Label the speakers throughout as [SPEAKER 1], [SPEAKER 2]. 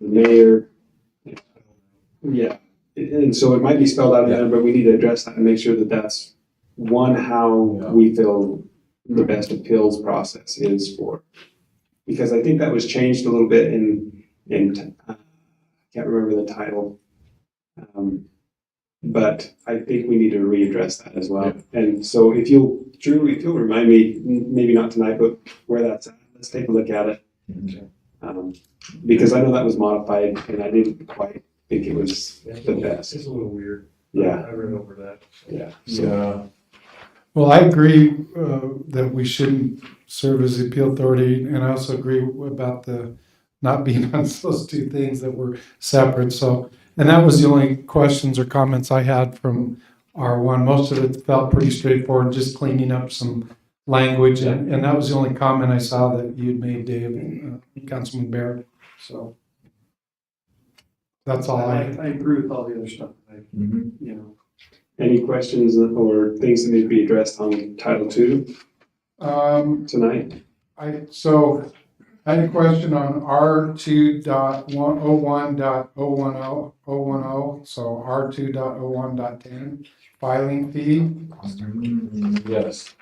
[SPEAKER 1] the mayor. Yeah, and- and so it might be spelled out in there, but we need to address that and make sure that that's one, how
[SPEAKER 2] Yeah.
[SPEAKER 1] we feel the best appeals process is for. Because I think that was changed a little bit in, in, uh, I can't remember the title. Um, But I think we need to readdress that as well. And so if you'll, Drew, if you'll remind me, m- maybe not tonight, but where that's at, let's take a look at it. Um, because I know that was modified and I didn't quite think it was the best.
[SPEAKER 3] It's a little weird.
[SPEAKER 1] Yeah,
[SPEAKER 3] I read over that.
[SPEAKER 1] yeah. So,
[SPEAKER 2] Yeah,
[SPEAKER 4] Well, I agree uh, that we shouldn't serve as the appeal authority, and I also agree about the not being on those two things that were separate. So, and that was the only questions or comments I had from R1. Most of it felt pretty straightforward, just cleaning up some language, and, and that was the only comment I saw that you'd made, Dave, uh, Councilman Barrett. So that's all I.
[SPEAKER 3] I, I agree with all the other stuff. I,
[SPEAKER 2] Mhm.
[SPEAKER 3] you know,
[SPEAKER 1] any questions or things that need to be addressed on Title Two
[SPEAKER 4] Um,
[SPEAKER 1] tonight?
[SPEAKER 4] I, so I had a question on R two dot one oh one dot oh one oh, oh one oh, so R two dot oh one dot ten, filing fee.
[SPEAKER 2] yes.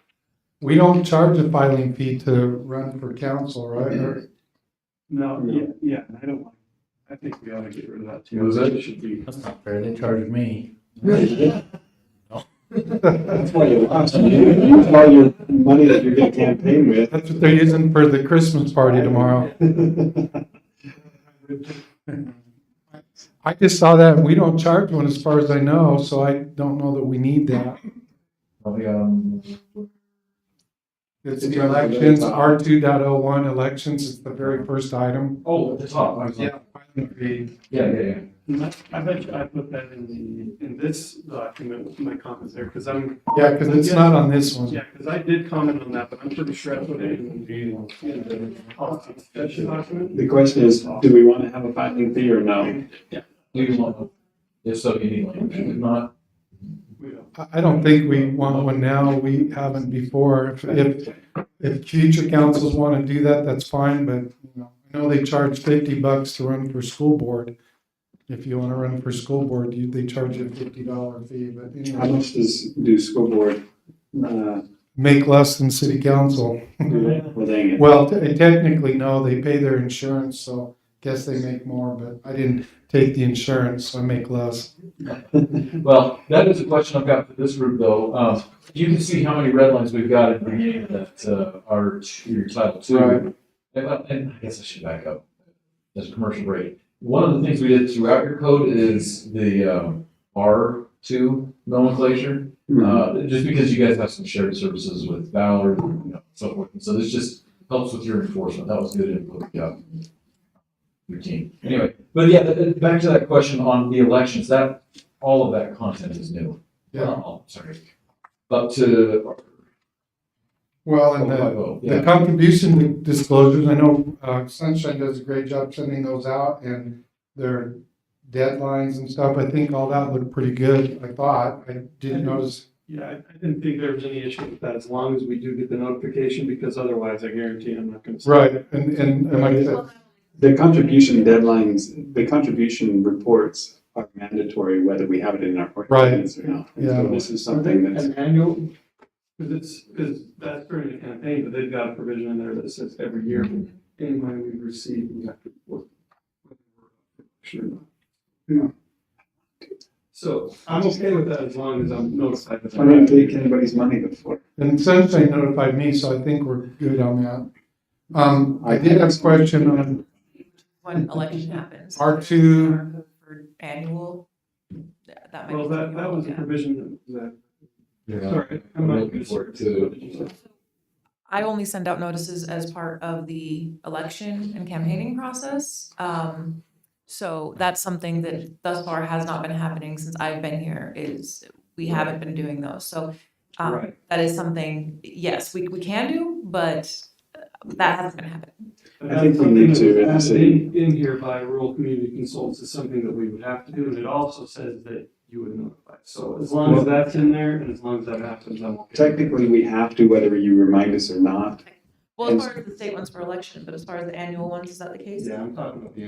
[SPEAKER 4] We don't charge a filing fee to run for council, right? Or-
[SPEAKER 3] No,
[SPEAKER 1] No.
[SPEAKER 3] yeah, yeah, I don't like, I think we ought to get rid of that too.
[SPEAKER 2] Was it?
[SPEAKER 3] Should be.
[SPEAKER 5] That's not fair, they charged me.
[SPEAKER 1] That's why you lost. That's all your money that you're gonna campaign with.
[SPEAKER 4] That's what they're using for the Christmas party tomorrow. I just saw that, and we don't charge one as far as I know, so I don't know that we need that.
[SPEAKER 2] Oh, yeah.
[SPEAKER 4] It's the elections, R two dot oh one elections is the very first item.
[SPEAKER 2] Oh, at the top, I was like,
[SPEAKER 4] Yeah, filing fee.
[SPEAKER 2] yeah, yeah, yeah.
[SPEAKER 3] And I I bet you I put that in the, in this document with my comments there, because I'm,
[SPEAKER 4] Yeah, because it's not on this one.
[SPEAKER 3] yeah, because I did comment on that, but I'm pretty sure I put it in the, in the policy discussion document.
[SPEAKER 1] The question is, do we wanna have a filing fee or no?
[SPEAKER 2] Do you want, if so, you need language, if not,
[SPEAKER 3] We don't.
[SPEAKER 4] I I don't think we want one now. We haven't before. If, if, if future councils want to do that, that's fine, but, you know, I know they charge fifty bucks to run for school board. If you want to run for school board, you, they charge you a fifty dollar fee, but
[SPEAKER 1] How
[SPEAKER 4] anyway,
[SPEAKER 1] much does, do school board, uh,
[SPEAKER 4] make less than city council.
[SPEAKER 1] do that? Well, dang it.
[SPEAKER 4] Well, te- technically, no, they pay their insurance, so guess they make more, but I didn't take the insurance, so I make less.
[SPEAKER 2] well, that is a question I've got for this group though. Um, you can see how many red lines we've got at the beginning of that, uh, our, two- your title two.
[SPEAKER 4] Right.
[SPEAKER 2] And, uh, and I guess I should back up. There's a commercial rate. One of the things we did throughout your code is the, um, R two nomenclature.
[SPEAKER 1] Mhm.
[SPEAKER 2] Uh, just because you guys have some shared services with Valor, you know, so forth. And so this just helps with your enforcement. That was good input, yeah. Your team. Anyway, but yeah, th- th- back to that question on the elections, that, all of that content is new.
[SPEAKER 4] Yeah,
[SPEAKER 2] Oh, Sorry. Up to. oh,
[SPEAKER 4] well, and the,
[SPEAKER 2] Yeah.
[SPEAKER 4] The contribution disclosures, I know uh, Sunshine does a great job sending those out and their deadlines and stuff. I think all that looked pretty good, I thought. I didn't notice.
[SPEAKER 3] Yeah, I, I didn't think there was any issue with that, as long as we do get the notification, because otherwise I guarantee I'm not gonna. see it.
[SPEAKER 4] Right, and, and and like I said,
[SPEAKER 1] The contribution deadlines, the contribution reports are mandatory whether we have it in our ordinance or not. And So
[SPEAKER 4] Yeah.
[SPEAKER 1] this is something that's,
[SPEAKER 3] An annual? Cause it's, cause that's during the campaign, but they've got a provision in there that says every year, any money we receive, we have to report. Sure. Yeah. So I'm okay with that as long as I'm notified. that
[SPEAKER 1] I didn't take anybody's money before.
[SPEAKER 4] and Sunshine notified me, so I think we're good on that. Um, I did have a question on
[SPEAKER 6] when election happens.
[SPEAKER 4] R2.
[SPEAKER 6] For Annual. That that might be.
[SPEAKER 3] Well, that,
[SPEAKER 6] something
[SPEAKER 3] that
[SPEAKER 6] we'll
[SPEAKER 3] was a
[SPEAKER 6] look at.
[SPEAKER 3] provision that,
[SPEAKER 2] Yeah.
[SPEAKER 3] sorry, I'm
[SPEAKER 2] I'm
[SPEAKER 3] not.
[SPEAKER 2] looking for it to-
[SPEAKER 6] I only send out notices as part of the election and campaigning process. Um, so that's something that thus far has not been happening since I've been here is we haven't been doing those. So um,
[SPEAKER 3] Right.
[SPEAKER 6] that is something, yes, we, we can do, but uh, that hasn't been happening.
[SPEAKER 1] I think we need to,
[SPEAKER 3] And that's
[SPEAKER 1] as a-
[SPEAKER 3] something that's added In, in here by rural community consultants is something that we would have to do, and it also says that you would notify. So as long as that's in there, and as long as that happens, I'm okay.
[SPEAKER 1] Technically, we have to whether you remind us or not.
[SPEAKER 6] Well, as far as the state ones for election, but as far as the annual ones, is that the case?
[SPEAKER 3] Yeah, I'm talking about the